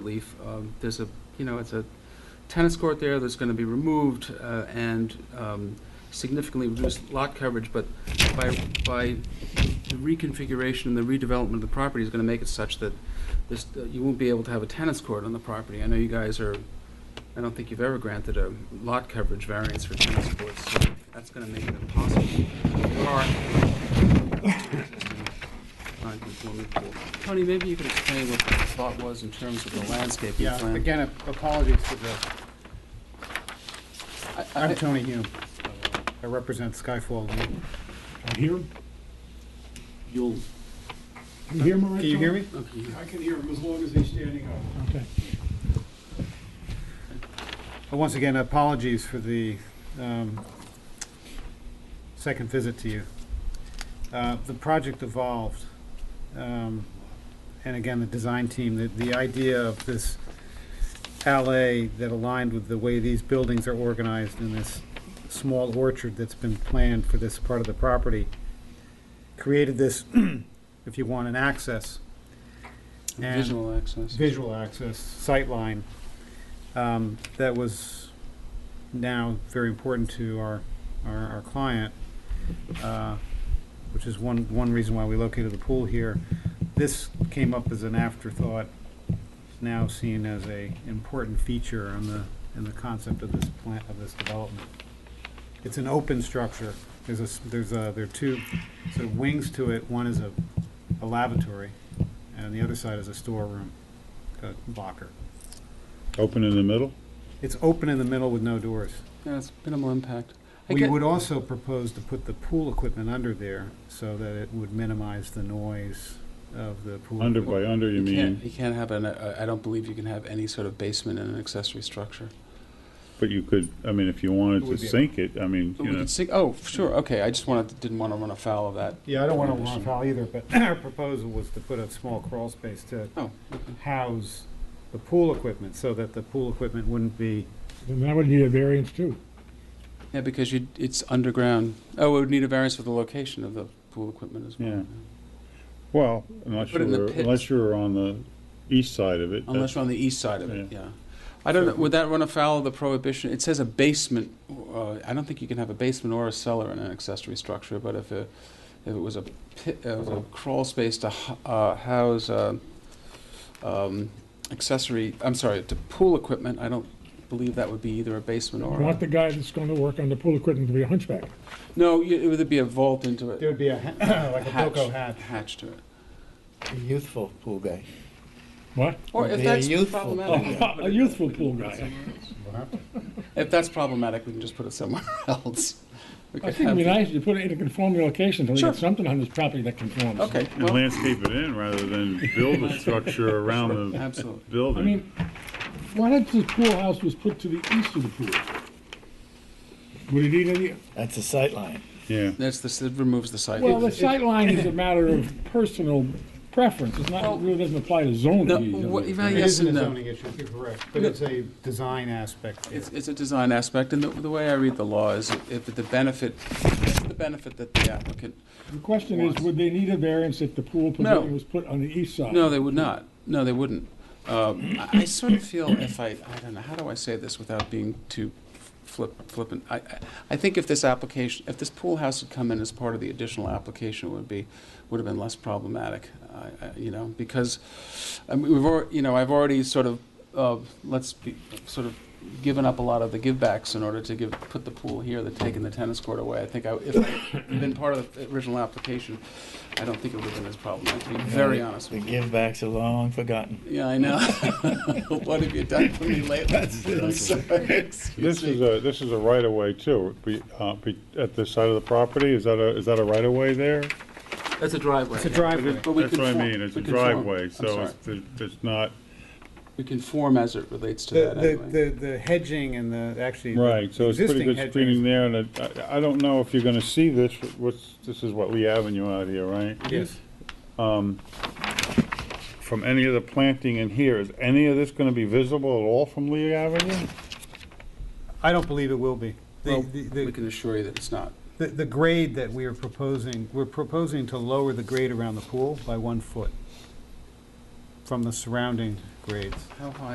relief. Um, There's a, you know, it's a tennis court there that's going to be removed uh, and um, significantly reduced lot coverage, but by, by the reconfiguration and the redevelopment of the property is going to make it such that this, that you won't be able to have a tennis court on the property. I know you guys are, I don't think you've ever granted a lot coverage variance for tennis courts, so that's going to make it impossible. to park non-conforming pool. Tony, maybe you could explain what the thought was in terms of the landscaping Yeah, plan. again, ap- apologies for the, I'm Tony Hume. I represent Skyfall. View. I hear him. You'll, you hear him all right? Can you hear Tom? me? Okay. I can hear him as long as he's standing up. Okay. Uh, Once again, apologies for the um, second visit to you. Uh, The project evolved, um, and again, the design team, the- the idea of this alley that aligned with the way these buildings are organized in this small orchard that's been planned for this part of the property, created this, if you want, an access. And- Visual access. visual access, sightline, um, that was now very important to our, our, our client, uh, which is one, one reason why we located the pool here. This came up as an afterthought, It's now seen as a important feature on the, in the concept of this plant, of this development. It's an open structure, there's a, s- there's a, there are two sort of wings to it, one is a, a lavatory, and on the other side is a storeroom, a locker. Open in the middle? It's open in the middle with no doors. Yeah, it's minimal impact. I We get- would also propose to put the pool equipment under there so that it would minimize the noise of the pool. Under by under, you You can't, mean, you can't have an, uh, I don't believe you can have any sort of basement in an accessory structure. but you could, I mean, if you wanted It to would be a- sink it, I mean, But you we know, could sink, oh, sure, okay, I just wanted, didn't want to run afoul of that. Yeah, I don't want to run foul either, but our proposal was to put a small crawl space to Oh, okay. house the pool equipment so that the pool equipment wouldn't be, Then that would need a variance too. Yeah, because you, it's underground. Oh, it would need a variance for the location of the pool equipment as well. Yeah. well, unless Put it in the you're, pit. unless you're on the east side of Unless it. that's- you're on the east side of it, yeah. I don't know, would that run afoul of the prohibition? It says a basement, uh, I don't think you can have a basement or a cellar in an accessory structure, but if it, if it was a pit, uh, was a crawl space to ho- uh, house, uh, um, accessory, I'm sorry, to pool equipment, I don't believe that would be either a basement or. Want a- the guy that's gonna work on the pool equipment to be a hunchback. No, y- it would be a vault into there it, would be a, ha- like a Hatch. Boco hatch. hatch to it. A youthful pool guy. What? Or Would if be a that's youthful problematic. we can put A it- youthful pool guy. If that's problematic, we can just put it somewhere else. We I could think it'd be have- nice to put it in a conforming location, so we Sure. get something on this property that conforms. Okay, And well, landscape it in rather than build a structure around the absolutely. I building. mean, why not the pool house was put to the east of the pool? Would it need Oh, any, That's a sight line. Yeah, That's the, it removes the site. well, the sightline is a matter of personal preference, it's not, it really doesn't apply to zoning. No, does it? what- if I- It Yes isn't a and no. zoning issue, you're correct, but it's a design aspect. It's, it's a design aspect, and the, the way I read the law is if the benefit, it's the benefit that the applicant, The question is, would they need a variance if the pool No. pavilion was put on the east side? no, they would not. No, they wouldn't. Um, I I sort of feel if I, I don't know, how do I say this without being too flip, flippant? I, I- I think if this application, if this pool house had come in as part of the additional application, it would be, would have been less problematic, I, I, you know, because, I mean, we've already, you know, I've already sort of, uh, let's be, sort of given up a lot of the givebacks in order to give, put the pool here, they're taking the tennis court away. I think I, if I'd been part of the original application, I don't think it would have been as problematic, to be very honest The with you. give backs are long forgotten. Yeah, I know. what have you done for me lately? I'm sorry. this Excuse is me. a, this is a right of way too, be, uh, be, at the side of the property, is that a, is that a right of way there? That's a driveway. It's a driveway. But we That's what I conform- mean, it's we a conform. driveway, I'm so sorry. it's, it's not, We conform as it relates to that The, anyway. the, the- the hedging and the, actually. the Right, so it's pretty existing good hedging screening is- there, and it- I, I don't know if you're gonna see this, what's, this is what Lee Avenue out here, right? Yes. From any of the planting in here, is any of this gonna be visible at all from Lee Avenue? I don't believe it will be. The- Well, the- the- We can assure you that it's not. The, the grade that we are proposing, we're proposing to lower the grade around the pool by one foot from the surrounding grades. How high